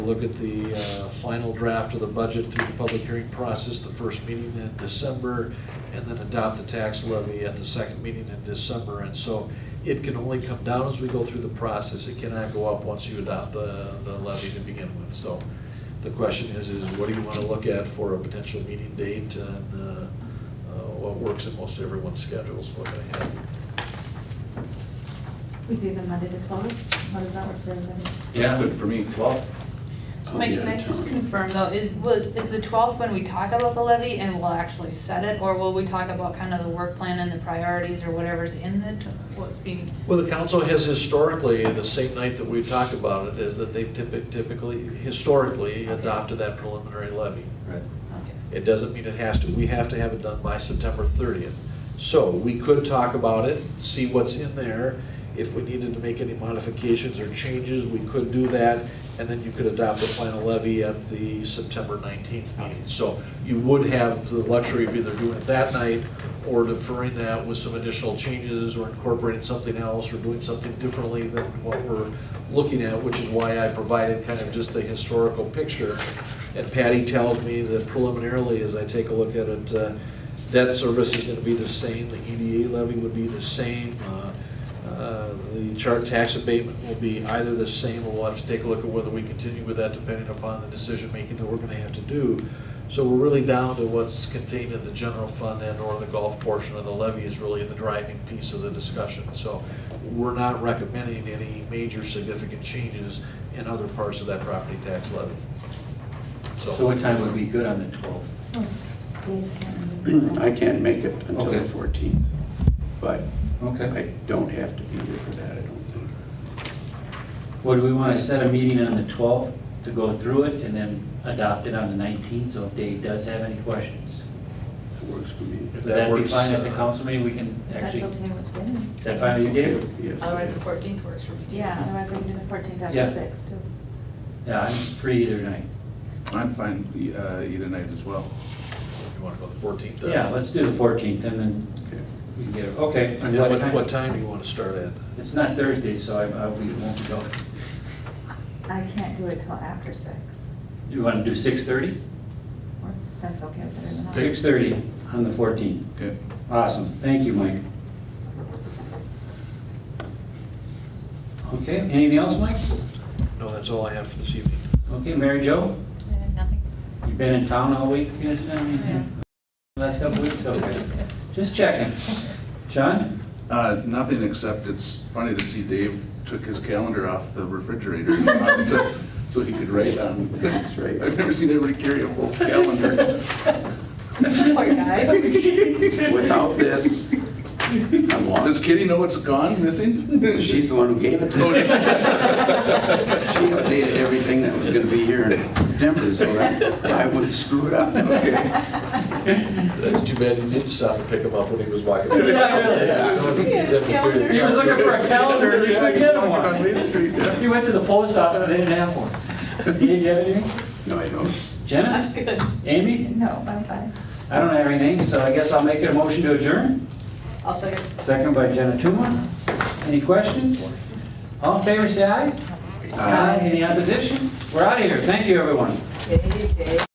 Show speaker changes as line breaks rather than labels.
Look at the uh, final draft of the budget through the public hearing process, the first meeting in December, and then adopt the tax levy at the second meeting in December. And so it can only come down as we go through the process. It cannot go up once you adopt the the levy to begin with. So the question is, is what do you want to look at for a potential meeting date and uh, uh, what works in most everyone's schedules, what I have.
We do the Monday the twelfth, how does that work for everybody?
Yeah, but for me, twelve. I'll
Mike,
be
can
out
I
of
just
town.
confirm though, is, was, is the twelfth when we talk about the levy and we'll actually set it? Or will we talk about kind of the work plan and the priorities or whatever's in the, tw- what's being?
Well, the council has historically, the same night that we talk about it, is that they've typi- typically, historically adopted that preliminary levy.
Right.
okay.
It doesn't mean it has to, we have to have it done by September thirtieth. So we could talk about it, see what's in there. If we needed to make any modifications or changes, we could do that. And then you could adopt the final levy at the September nineteenth meeting. So you would have the luxury of either doing it that night or deferring that with some additional changes or incorporating something else or doing something differently than what we're looking at, which is why I provided kind of just the historical picture. And Patty tells me that preliminarily, as I take a look at it, uh, debt service is gonna be the same, the EDA levy would be the same, uh, uh, the chart tax abatement will be either the same, or we'll have to take a look at whether we continue with that depending upon the decision-making that we're gonna have to do. So we're really down to what's contained in the general fund and/or the golf portion of the levy is really the driving piece of the discussion. So we're not recommending any major significant changes in other parts of that property tax levy. So
So what time would be good on the twelfth?
Oh,
I can't make it until the
Okay.
14th, but I
Okay.
don't have to be here for that, I don't think.
Would we want to set a meeting on the twelfth to go through it and then adopt it on the nineteenth? So if Dave does have any questions,
It works for me.
If
would
that
that be
works,
fine at the
uh,
council meeting? We can
That's
actually,
okay
is
with me.
that fine with you, Dave?
Yes. it
Otherwise,
is.
the fourteenth works for me.
Yeah, otherwise I can do the fourteenth
Yeah.
after six too.
Yeah, I'm free either night.
I'm fine e- uh, either night as well.
You want to go the 14th? then?
Yeah, let's do the fourteenth and then
Okay.
we can get it. Okay.
And what, what time do you want to start at?
It's not Thursday, so I, I we won't go.
I can't do it till after six,
Do you want to do six thirty?
or that's okay with everyone else.
Six thirty on the fourteenth.
Okay.
Awesome, thank you, Mike. Okay, anything else, Mike?
No, that's all I have for this evening.
Okay, Mary Jo,
Nothing.
you've been in town all week, you know, last couple weeks, okay. Just checking. Sean?
Uh, Nothing except it's funny to see Dave took his calendar off the refrigerator to- so he could write on.
That's right.
I've never seen anybody carry a full calendar.
Poor guy.
Without this, I'm
Does
lost.
Kitty know what's gone, missing? Oh,
She's the one who gave it to me. She updated everything that was going to be here in September, so that I wouldn't screw it up.
It's too bad Uh, you didn't stop and pick him up when he was walking.
really. He was looking for a calendar, and he
Yeah,
couldn't
he's
get
walking on Main
one.
Street, yeah.
He went to the post office, they didn't have one. Did you have anything?
No, I don't.
I'm
Jenna?
good.
Amy?
No, I'm fine.
I don't have anything, so I guess I'll make it a motion to adjourn.
I'll second.
Second by Jenna Tuma. Any questions? All in favor, say aye. Aye. Any opposition? We're out of here. Thank you, everyone.